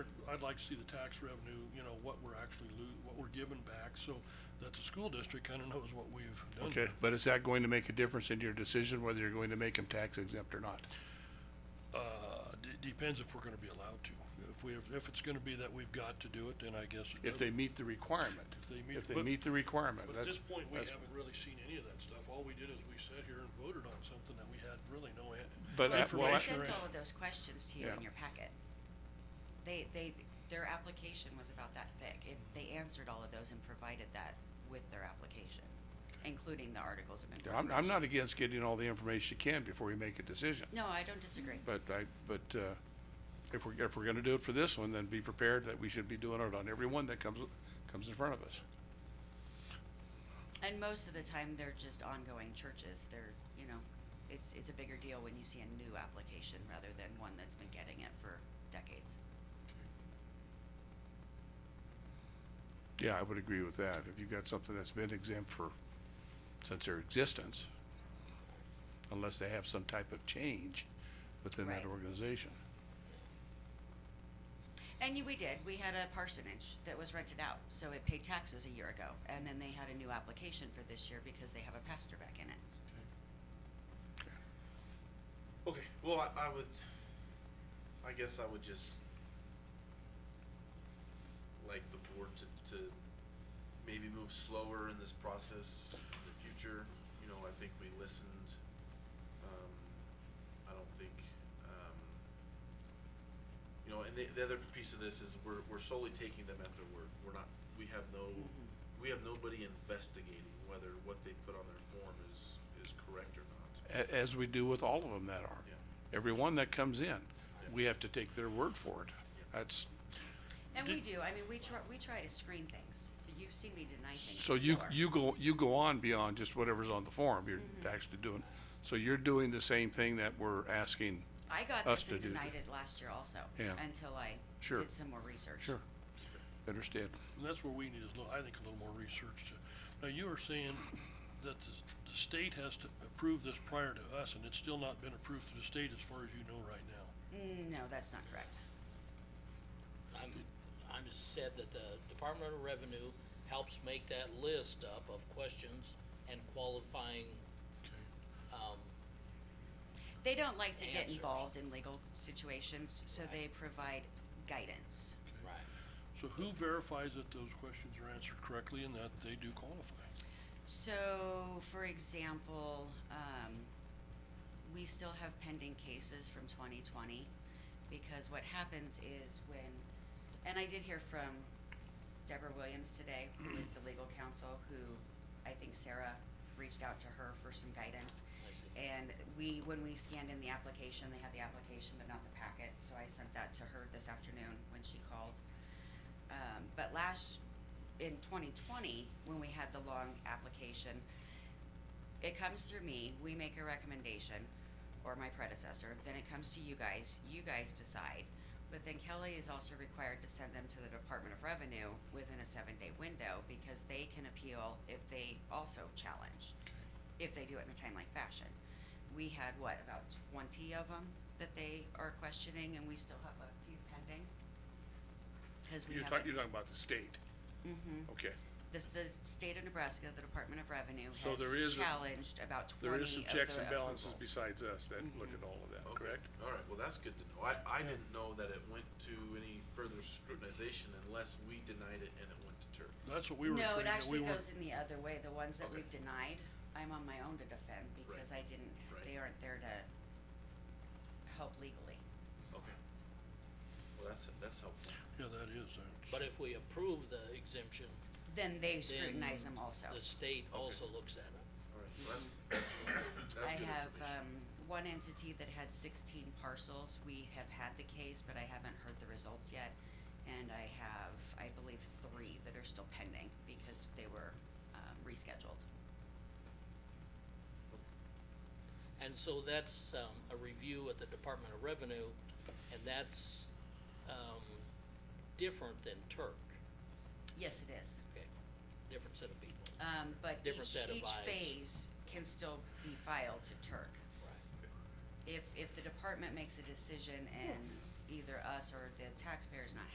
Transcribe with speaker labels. Speaker 1: I'd like to see the tax revenue, you know, what we're actually lo- what we're giving back, so that the school district kinda knows what we've done.
Speaker 2: Okay, but is that going to make a difference in your decision whether you're going to make them tax exempt or not?
Speaker 1: Uh, d- depends if we're gonna be allowed to. If we, if it's gonna be that we've got to do it, then I guess. it
Speaker 2: If
Speaker 1: does.
Speaker 2: they meet the requirement,
Speaker 1: If they meet-
Speaker 2: if they
Speaker 1: but-
Speaker 2: meet the requirement,
Speaker 1: But at
Speaker 2: that's,
Speaker 1: this point, we
Speaker 2: that's-
Speaker 1: haven't really seen any of that stuff. All we did is we sat here and voted on something that we had really no an-
Speaker 2: But at- well,
Speaker 1: information.
Speaker 2: I- Sure.
Speaker 3: I sent all of those questions to you in
Speaker 2: Yeah.
Speaker 3: your packet. They, they, their application was about that thick. It, they answered all of those and provided that with their application, including the articles of
Speaker 2: I'm,
Speaker 3: incorporation.
Speaker 2: I'm not against getting all the information you can before you make a decision.
Speaker 3: No, I don't disagree.
Speaker 2: But I, but, uh, if we're, if we're gonna do it for this one, then be prepared that we should be doing it on every one that comes, comes in front of us.
Speaker 3: And most of the time, they're just ongoing churches. They're, you know, it's, it's a bigger deal when you see a new application rather than one that's been getting it for decades.
Speaker 2: Yeah, I would agree with that. If you've got something that's been exempt for, since their existence, unless they have some type of change within that
Speaker 3: Right.
Speaker 2: organization.
Speaker 3: And you- we did. We had a parsonage that was rented out, so it paid taxes a year ago. And then they had a new application for this year because they have a pastor back in it.
Speaker 4: Okay, well, I, I would, I guess I would just like the board to, to maybe move slower in this process in the future. You know, I think we listened, um, I don't think, um, you know, and the, the other piece of this is we're, we're solely taking them at their word. We're not, we have no, we have nobody investigating whether what they put on their form is, is correct or not.
Speaker 2: a- as we do with all of them that are.
Speaker 4: Yeah.
Speaker 2: Every one that comes in, we have to take their word for it. That's,
Speaker 3: And we do. I mean, we try, we try to screen things. You've seen me deny things
Speaker 2: so you,
Speaker 3: before.
Speaker 2: you go, you go on beyond just whatever's on the form, you're actually doing, so you're doing the same thing that we're asking.
Speaker 3: I got
Speaker 2: us
Speaker 3: this and
Speaker 2: to do
Speaker 3: denied
Speaker 2: that.
Speaker 3: it last year also.
Speaker 2: Yeah.
Speaker 3: Until I
Speaker 2: Sure.
Speaker 3: did some more research.
Speaker 2: Understand,
Speaker 1: And that's where we need is, a little- I think, a little more research to, now you are saying that the, the state has to approve this prior to us, and it's still not been approved through the state as far as you know right now.
Speaker 3: Mm, No, that's not correct.
Speaker 5: I'm, I'm just said that the Department of Revenue helps make that list up of questions and qualifying, um,
Speaker 3: They don't like to get
Speaker 5: Answers.
Speaker 3: involved in legal situations, so they provide guidance.
Speaker 5: right.
Speaker 1: So who verifies that those questions are answered correctly and that they do qualify?
Speaker 3: So, for example, um, we still have pending cases from twenty twenty, because what happens is when, and I did hear from Deborah Williams today, who is the legal counsel, who I think Sarah reached out to her for some guidance.
Speaker 5: I see.
Speaker 3: And we, when we scanned in the application, they had the application but not the packet, so I sent that to her this afternoon when she called. Um, but last, in twenty twenty, when we had the long application, it comes through me, we make a recommendation, or my predecessor, then it comes to you guys, you guys decide. But then Kelly is also required to send them to the Department of Revenue within a seven-day window, because they can appeal if they also challenge if they do it in a timely fashion. We had, what, about twenty of them that they are questioning, and we still have a few pending? Because we
Speaker 2: you're
Speaker 3: haven't,
Speaker 2: talking, you're talking about the state,
Speaker 3: Mhm.
Speaker 2: okay,
Speaker 3: This, the state of Nebraska, the Department of Revenue
Speaker 2: So there is
Speaker 3: has
Speaker 2: a-
Speaker 3: challenged about twenty
Speaker 2: there
Speaker 3: of the
Speaker 2: is some checks and balances
Speaker 3: approvals.
Speaker 2: besides us that look at all of that,
Speaker 4: Okay.
Speaker 2: correct?
Speaker 4: Oh, All right, well, that's good to know. I, I didn't know that it went to any further scrutinization unless we denied it and it went to turf.
Speaker 1: That's what we were
Speaker 3: No,
Speaker 1: referring
Speaker 3: it
Speaker 1: to. We
Speaker 3: actually
Speaker 1: weren't-
Speaker 3: goes in the other way, the ones that
Speaker 4: Okay.
Speaker 3: we've denied, I'm on my own to defend, because I didn't,
Speaker 4: Right.
Speaker 3: they aren't there to help legally.
Speaker 4: Okay. Well, that's, that's helpful.
Speaker 1: Yeah, that is. that's-
Speaker 5: But if we approve the exemption,
Speaker 3: Then they
Speaker 5: then
Speaker 3: scrutinize them also.
Speaker 5: the state
Speaker 4: Okay.
Speaker 5: also looks at it.
Speaker 4: All right, well, that's, that's, that's
Speaker 3: I
Speaker 4: good
Speaker 3: have,
Speaker 4: information.
Speaker 3: um, one entity that had sixteen parcels. We have had the case, but I haven't heard the results yet. And I have, I believe, three that are still pending because they were, um, rescheduled.
Speaker 5: And so that's, um, a review at the Department of Revenue, and that's, um, different than Turk,
Speaker 3: Yes, it is.
Speaker 5: okay? Different set of people,
Speaker 3: Um, but
Speaker 5: Different
Speaker 3: each,
Speaker 5: set of
Speaker 3: each
Speaker 5: eyes.
Speaker 3: phase can still be filed to Turk.
Speaker 5: right?
Speaker 3: If, if the department makes a decision and either us or the taxpayer's not